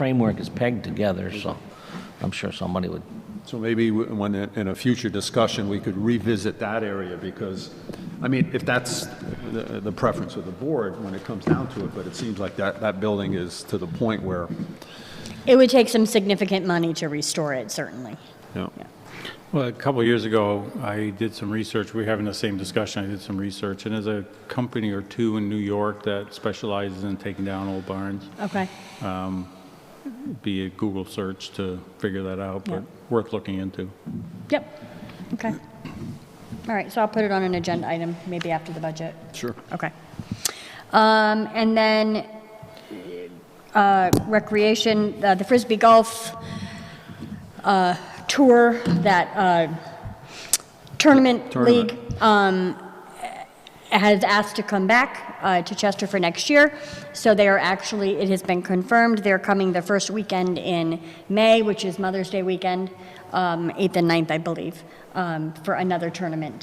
framework is pegged together, so I'm sure somebody would, So maybe w- when, in in a future discussion, we could revisit that area, because, I mean, if that's the the preference of the board when it comes down to it, but it seems like that, that building is to the point where, It would take some significant money to restore it, certainly. you know, Well, a couple of years ago, I did some research, we were having the same discussion, I did some research, and there's a company or two in New York that specializes in taking down old barns. Okay. Be a Google search to figure that out, Yeah. but worth looking into. Yep. Okay. All right, so I'll put it on an agenda item, maybe after the budget. Sure. Okay. Um, And then uh, recreation, uh, the Frisbee Golf uh, Tour, that uh, tournament Tournament. league um, has asked to come back uh, to Chester for next year. So they are actually, it has been confirmed, they're coming the first weekend in May, which is Mother's Day weekend, um, 8th and 9th, I believe, um, for another tournament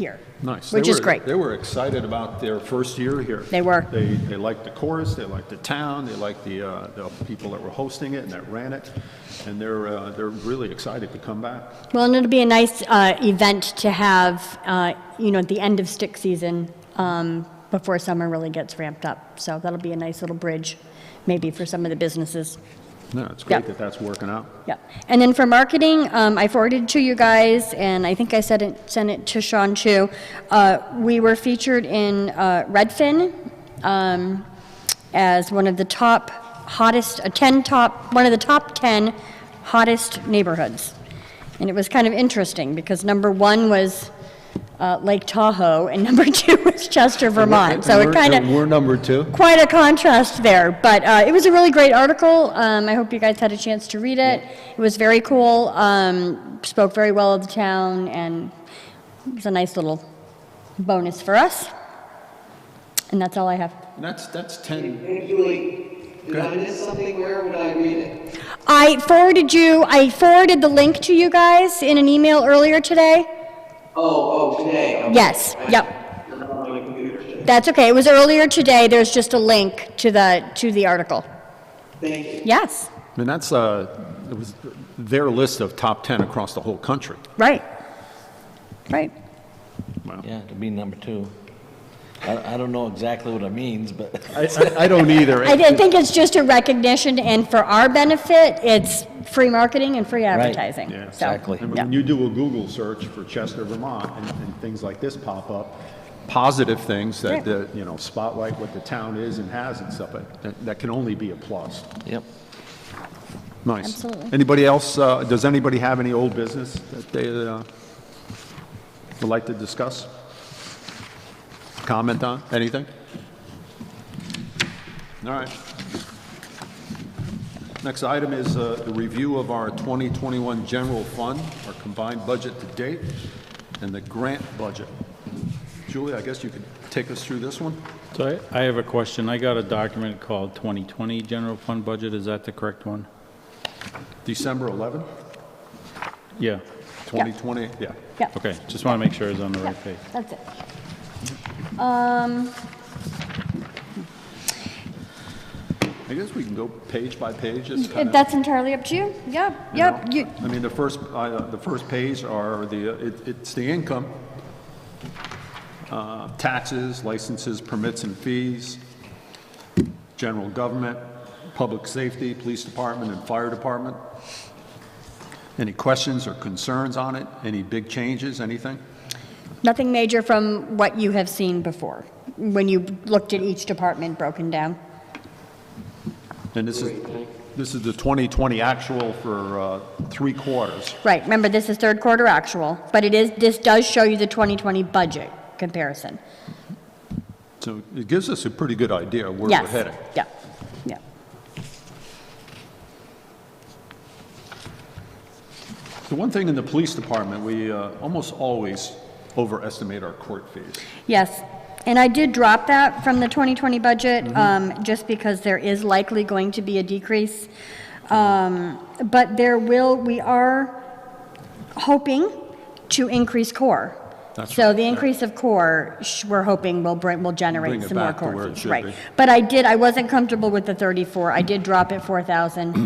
here. nice. They Which is were- great. They were excited about their first year here. They were. They, they liked the chorus, they liked the town, they liked the, uh, the people that were hosting it and that ran it, and they're, uh, they're really excited to come back. Well, and it'll be a nice uh, event to have, uh, you know, at the end of stick season, um, before summer really gets ramped up. So that'll be a nice little bridge, maybe for some of the businesses. No, it's great Yeah. that that's working out. Yep. And then for marketing, um, I forwarded to you guys, and I think I said it, sent it to Sean too. Uh, we were featured in uh, Redfin um, as one of the top hottest, uh, ten top, one of the top ten hottest neighborhoods, and it was kind of interesting because number one was. Uh, Lake Tahoe, and number two was Chester, Vermont. So it kind of We're number two. quite a contrast there, but uh, it was a really great article. Um, I hope you guys had a chance to read it. It was very cool. Um, spoke very well of the town, and it was a nice little bonus for us. And that's all I have. And that's, that's 10, Hey, Julie, did I miss something? Where would I read it? I forwarded you. I forwarded the link to you guys in an email earlier today. Oh, oh, today. okay. Yes. Yep. I'm on my computer. That's okay. It was earlier today. There's just a link to the to the article. Thank you. Yes. And that's, uh, it was their list of top 10 across the whole country. Right. Right. yeah, to be number two. I, I don't know exactly what it means, but I, I don't either. I did think it's just a recognition, and for our benefit, it's free marketing and free advertising. Yeah, So, exactly. And yeah. when you do a Google search for Chester, Vermont, and, and things like this pop up, positive things that, Yeah. that, you know, spotlight what the town is and has and stuff, but that, that can only be a plus. Yep. Nice. Absolutely. Anybody else, uh, does anybody have any old business that they, uh, would like to discuss? Comment on, anything? All right. Next item is uh, the review of our 2021 general fund, our combined budget to date, and the grant budget. Julie, I guess you could take us through this one? So I, I have a question, I got a document called 2020 General Fund Budget, is that the correct one? December 11, Yeah, 2020, yeah. Yeah, okay, just want to make sure it's on the right page. that's it. Um, I guess we can go page by page, just kind of. Mm, That's entirely up to you. Yep, yep. You You, know, I mean, the first, I, uh, the first page are the, uh, it- it's the income, uh, taxes, licenses, permits and fees, general government, public safety, police department and fire department. Any questions or concerns on it? Any big changes, anything? nothing major from what you have seen before, when you looked at each department broken down. And this is, this is the 2020 actual for uh, three quarters. Right, remember, this is third quarter actual, but it is, this does show you the 2020 budget comparison. So it gives us a pretty good idea where we're Yes. heading. Yeah, yeah. The one thing in the police department, we uh, almost always overestimate our court fees. Yes, and I did drop that from the 2020 Mm-hmm. budget, um, just because there is likely going to be a decrease. Um, But there will, we are hoping to increase core. That's So right, the yeah. increase of core, sh- we're hoping will bring, will Bring generate it some more back to core where it fees, should right. be. But I did, I wasn't comfortable with the 34, I did drop it 4,000.